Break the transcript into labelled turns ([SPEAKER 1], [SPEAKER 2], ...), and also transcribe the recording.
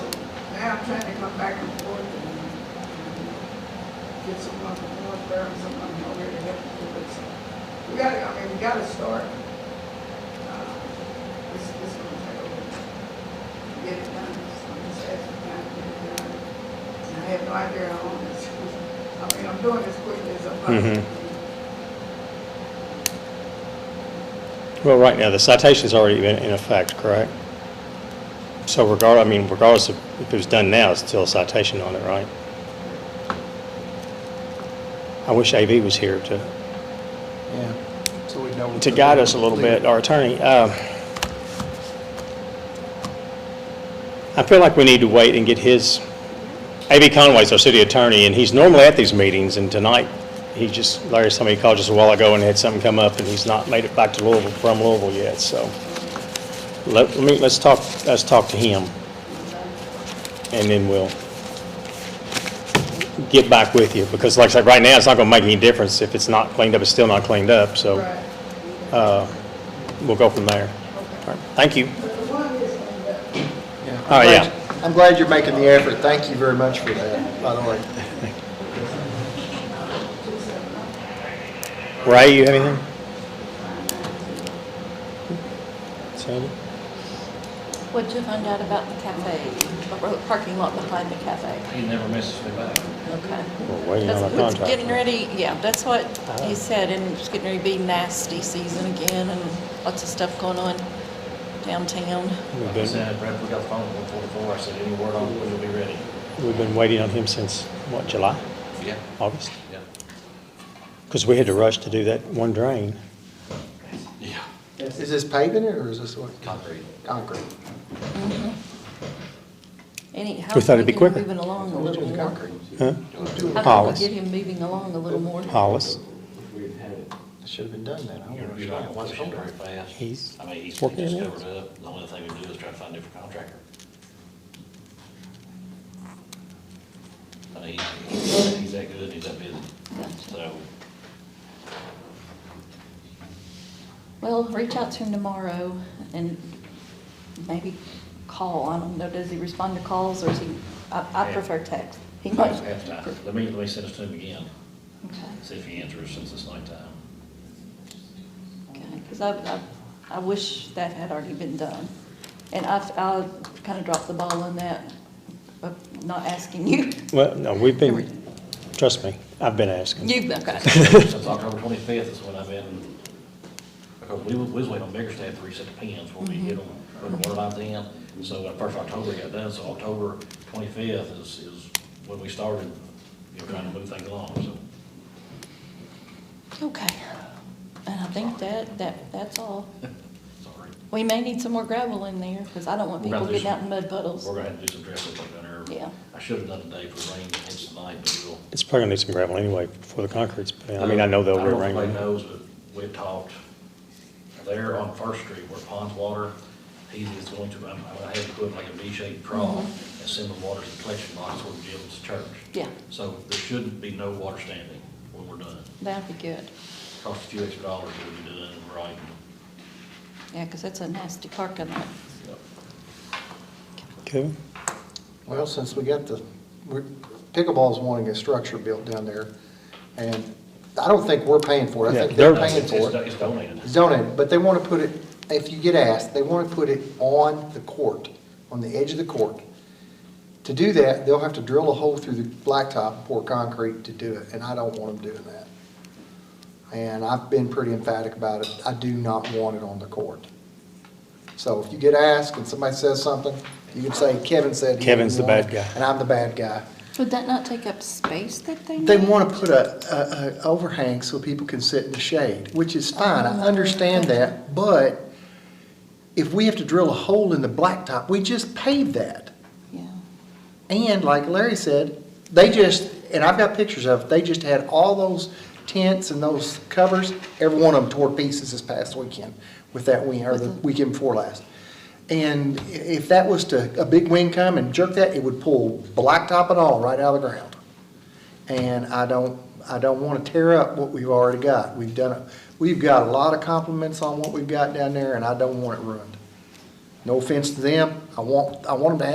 [SPEAKER 1] now I'm trying to come back and forth and get someone from North Burton, someone over here to help me do it. So We gotta, I mean, we gotta start. Uh, This, this gonna take a while. to Get it done, so I'm just asking time to get it done. And I have no idea how long this, I mean, I'm doing this quickly as I possibly
[SPEAKER 2] Mhm.
[SPEAKER 1] can.
[SPEAKER 2] Well, right now, the citation's already in in effect, correct? So regard, I mean, regardless of if it was done now, it's still a citation on it, right? I wish AV was here to
[SPEAKER 3] Yeah. So we know.
[SPEAKER 2] um, to guide us a little bit, our attorney. um, I feel like we need to wait and get his, A.B. Conway's our city attorney, and he's normally at these meetings, and tonight, he just, Larry, somebody called just a while ago and had something come up, and he's not made it back to Louisville, from Louisville yet, so let let me, let's talk, let's talk to him, and then we'll get back with you, because like I said, right now, it's not going to make any difference if it's not cleaned up, it's still not cleaned up, so
[SPEAKER 1] Right.
[SPEAKER 2] uh, we'll go from there. All right, Thank you.
[SPEAKER 1] But the one is, uh,
[SPEAKER 3] Yeah.
[SPEAKER 2] Oh, yeah.
[SPEAKER 3] I'm glad you're making the effort. Thank you very much for that, by the way.
[SPEAKER 2] Ray, you have anything? Sandy?
[SPEAKER 4] What'd you find out about the cafe, the ro- parking lot behind the cafe?
[SPEAKER 5] He never messes me back.
[SPEAKER 4] Okay.
[SPEAKER 2] We're waiting
[SPEAKER 4] That's
[SPEAKER 2] on a
[SPEAKER 4] what's
[SPEAKER 2] contract.
[SPEAKER 4] getting ready, yeah, that's what
[SPEAKER 2] Uh-huh.
[SPEAKER 4] he said, and it's getting ready to be nasty season again, and lots of stuff going on downtown.
[SPEAKER 2] We've
[SPEAKER 5] Like I
[SPEAKER 2] been,
[SPEAKER 5] said, Brad, we got the phone at one forty-four, I said, any word on when you'll be ready?
[SPEAKER 2] we've been waiting on him since, what, July,
[SPEAKER 5] Yeah.
[SPEAKER 2] August?
[SPEAKER 5] Yeah.
[SPEAKER 2] Because we had to rush to do that one drain.
[SPEAKER 5] Yeah.
[SPEAKER 3] Is this paving it or is this what?
[SPEAKER 5] Concrete.
[SPEAKER 3] Concrete.
[SPEAKER 4] Any, how
[SPEAKER 2] We thought
[SPEAKER 4] can
[SPEAKER 2] it'd
[SPEAKER 4] we
[SPEAKER 2] be
[SPEAKER 4] get
[SPEAKER 2] quicker.
[SPEAKER 4] him moving along a
[SPEAKER 3] Who's
[SPEAKER 4] little
[SPEAKER 3] doing
[SPEAKER 4] more?
[SPEAKER 3] concrete?
[SPEAKER 2] Huh?
[SPEAKER 3] Who's doing it?
[SPEAKER 4] How can
[SPEAKER 2] Hollis.
[SPEAKER 4] we get him moving along a little more?
[SPEAKER 2] Hollis,
[SPEAKER 3] It Should have been done then. I don't
[SPEAKER 5] You're not
[SPEAKER 3] understand why it's
[SPEAKER 5] pushing
[SPEAKER 3] over.
[SPEAKER 5] very fast.
[SPEAKER 2] He's
[SPEAKER 5] I mean, he's, he
[SPEAKER 2] working
[SPEAKER 5] just
[SPEAKER 2] it out.
[SPEAKER 5] covered it up, the only thing we can do is try to find a different contractor. I mean, he's, he's that good, he's that busy,
[SPEAKER 4] Gotcha.
[SPEAKER 5] so,
[SPEAKER 4] Well, reach out to him tomorrow and maybe call. I don't know, does he respond to calls or is he, I, I
[SPEAKER 5] Yeah.
[SPEAKER 4] prefer text. He might.
[SPEAKER 5] he's half time. Let me, let me send it to him again,
[SPEAKER 4] Okay,
[SPEAKER 5] see if he answers since it's nighttime.
[SPEAKER 4] because I, I, I wish that had already been done. And I, I kind of dropped the ball on that, but not asking you.
[SPEAKER 2] well, no, we've been, trust me, I've been asking.
[SPEAKER 4] You, okay.
[SPEAKER 5] Since October twenty-fifth is when I've been, because we was, we was waiting on Bickerstaff to reset the pins when we hit them, when the water lines in. So when first October got done, so October twenty-fifth is, is when we started, you know, trying to move things along, so.
[SPEAKER 4] Okay. And I think that, that, that's all.
[SPEAKER 5] Sorry.
[SPEAKER 4] We may need some more gravel in there because I don't want
[SPEAKER 5] We're gonna
[SPEAKER 4] people
[SPEAKER 5] do
[SPEAKER 4] getting
[SPEAKER 5] some-
[SPEAKER 4] out in mud puddles.
[SPEAKER 5] We're gonna have to do some dressing up down there.
[SPEAKER 4] Yeah.
[SPEAKER 5] I should have done today for rain, it's tonight, but we'll.
[SPEAKER 2] It's probably gonna need some gravel anyway before the concrete's, put in. I mean, I know they'll
[SPEAKER 5] I don't know if
[SPEAKER 2] rearrange.
[SPEAKER 5] anybody
[SPEAKER 2] it.
[SPEAKER 5] knows, but we've talked, there on First Street where Pond's water, he is going to, I'm, I'm gonna have to put like a V-shaped trough and send the water to the collection box where Jim's church.
[SPEAKER 4] Yeah.
[SPEAKER 5] So there shouldn't be no water standing when we're done.
[SPEAKER 4] That'd be good.
[SPEAKER 5] Cost a few extra dollars to be done right.
[SPEAKER 4] Yeah, because that's a nasty parking lot.
[SPEAKER 2] Kevin?
[SPEAKER 3] Well, since we got the, we're- pickleball's wanting a structure built down there and I don't think we're paying for it. I
[SPEAKER 2] Yeah,
[SPEAKER 3] think they're
[SPEAKER 2] they're-
[SPEAKER 3] paying for it.
[SPEAKER 5] It's donated.
[SPEAKER 3] zoning, but they want to put it, if you get asked, they want to put it on the court, on the edge of the court. To do that, they'll have to drill a hole through the blacktop, and pour concrete to do it, and I don't want them doing that. And I've been pretty emphatic about it, I do not want it on the court. So if you get asked and somebody says something, you can say, Kevin said. he
[SPEAKER 2] Kevin's the
[SPEAKER 3] didn't want
[SPEAKER 2] bad
[SPEAKER 3] it,"
[SPEAKER 2] guy.
[SPEAKER 3] And I'm the bad guy.
[SPEAKER 4] Would that not take up space that they need?
[SPEAKER 3] They want to put a, a, a overhang so people can sit in the shade, which is fine, I understand that, but if we have to drill a hole in the blacktop, we just pave that.
[SPEAKER 4] Yeah,
[SPEAKER 3] And like Larry said, they just, and I've got pictures of, it, they just had all those tents and those covers, every one of them tore to pieces this past weekend with that wind, or the weekend before last. And i- if that was to, a big wind come and jerk that, it would pull blacktop and all right out of the ground. And I don't, I don't want to tear up what we've already got. We've done, a- we've got a lot of compliments on what we've got down there, and I don't want it ruined. No offense to them, I want, I want them to have